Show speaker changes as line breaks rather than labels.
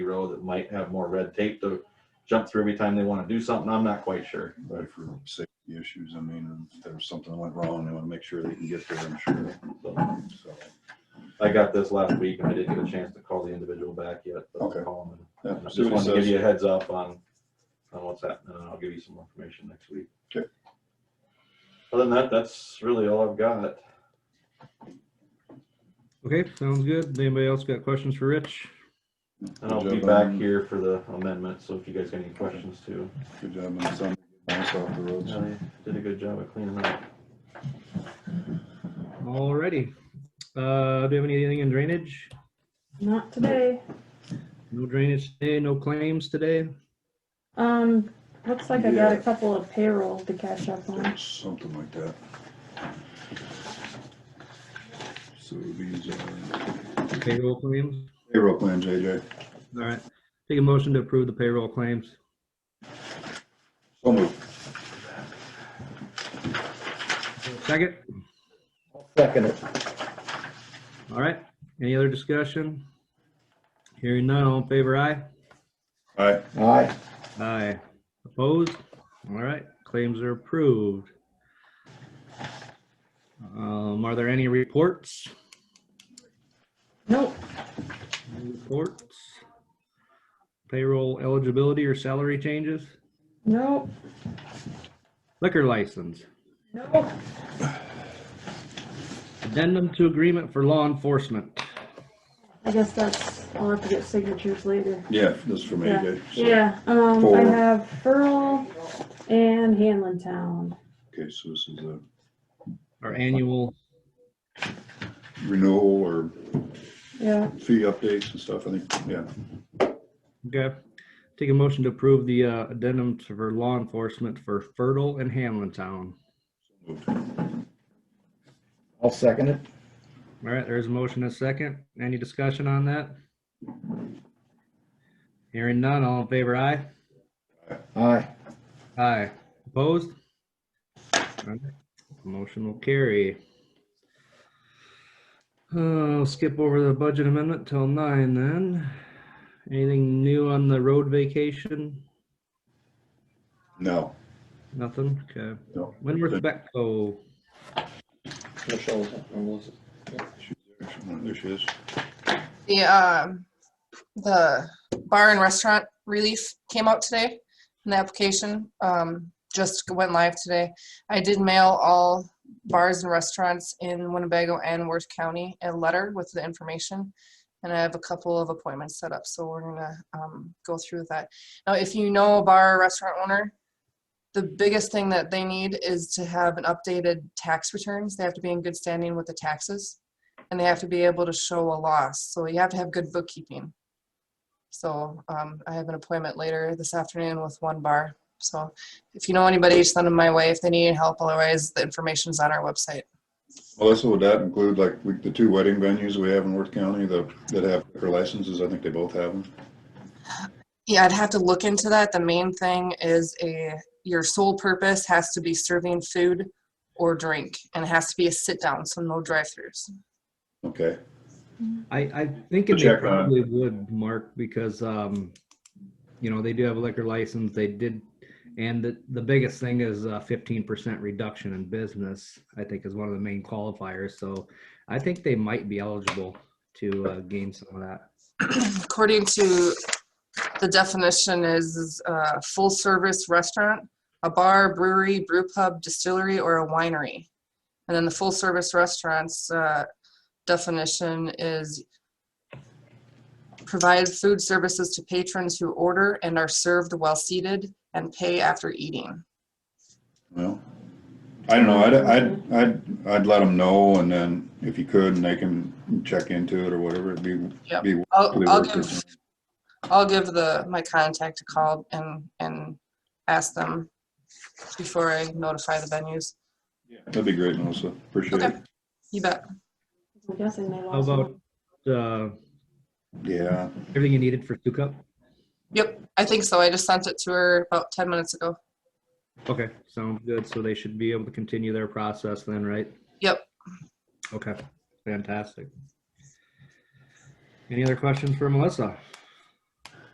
grow that might have more red tape to jump through every time they want to do something. I'm not quite sure.
But for safety issues, I mean, if there's something went wrong, they want to make sure they can get there, I'm sure.
So,
So,
I got this last week and I didn't get a chance to call the individual back yet, but I'll
Okay.
call him. and-
yeah,
I Just
see what
wanted
he
to give
says.
you a heads up on, on what's happening, and I'll give you some more information next week.
Okay.
Other than that, that's really all I've got.
Okay, sounds good. Anybody else got questions for Rich?
And I'll
Good
be
job um,
back
on-
here for the amendment, so if you guys got any questions too.
Good job on Sunday, nice off the roads.
Yeah, they Did a good job of cleaning up.
Alrighty. Uh, do you have anything in drainage?
Not today.
No drainage today, no claims today?
Um, looks like I got a
Yeah.
couple of payroll to catch up on.
Something like that. So these are
Payroll claims?
payroll plan, JJ.
Alright, take a motion to approve the payroll claims.
So move.
Second?
Second it.
Alright, any other discussion? Hearing none, all in favor, aye?
All right,
Aye.
Aye. Opposed? Alright, claims are approved. Um, are there any reports?
Nope,
Reports? Payroll eligibility or salary changes?
nope,
Liquor license.
nope.
Addendum to agreement for law enforcement.
I guess that's, I'll have to get signatures later.
yeah, this is from AJ. So-
Yeah, um, I
Four.
have Furl and Hanlon Town.
Okay, so this is a
Our annual,
renewal or
Yeah,
fee updates and stuff, I think, yeah.
okay. Take a motion to approve the uh, addendum to- for law enforcement for Fertile and Hamlin Town.
Moved.
I'll second it.
All right, there's a motion and a second. Any discussion on that? Hearing none, all in favor, aye?
Aye.
Aye. Opposed? All right, Motion will carry. Uh, I'll skip over the budget amendment till nine then. Anything new on the road vacation?
No,
Nothing? Okay.
no.
Windward Becko,
Michelle's.
There she is.
The, um, the bar and restaurant relief came out today, and the application, um, just went live today. I did mail all bars and restaurants in Winnebago and Worth County a letter with the information. And I have a couple of appointments set up, so we're gonna, um, go through with that. Now, if you know a bar or restaurant owner, the biggest thing that they need is to have an updated tax returns. They have to be in good standing with the taxes and they have to be able to show a loss. So you have to have good bookkeeping. So um, I have an appointment later this afternoon with one bar. So if you know anybody, send them my way if they need help. Otherwise, the information's on our website.
Melissa, would that include like we- the two wedding venues we have in Worth County that, that have liquor licenses? I think they both have them.
Yeah, I'd have to look into that. The main thing is a your sole purpose has to be serving food or drink, and it has to be a sit down, so no drive-throughs.
Okay,
I, I think it
Check on it.
probably would, Mark, because, um, you know, they do have a liquor license, they did, and the, the biggest thing is uh fifteen percent reduction in business, I think is one of the main qualifiers, so I think they might be eligible to uh, gain some of that.
according to the definition is, is a full-service restaurant, a bar, brewery, brew pub, distillery, or a winery. And then the full-service restaurants, uh, definition is provide food services to patrons who order and are served while seated and pay after eating.
well, I don't know, I'd, I'd, I'd, I'd let them know and then if you could and they can check into it or whatever, it'd be.
Yep.
be
I'll,
really
I'll
worth
give,
it.
I'll give the, my contact a call and, and ask them before I notify the venues.
That'd be great, Melissa, appreciate it.
Okay. You bet.
I'm guessing they
How
lost
about,
one.
uh,
Yeah,
everything you needed for Stu Cup?
Yep, I think so. I just sent it to her about ten minutes ago.
Okay, sounds good. So they should be able to continue their process then, right?
Yep.
Okay, fantastic. Any other questions for Melissa?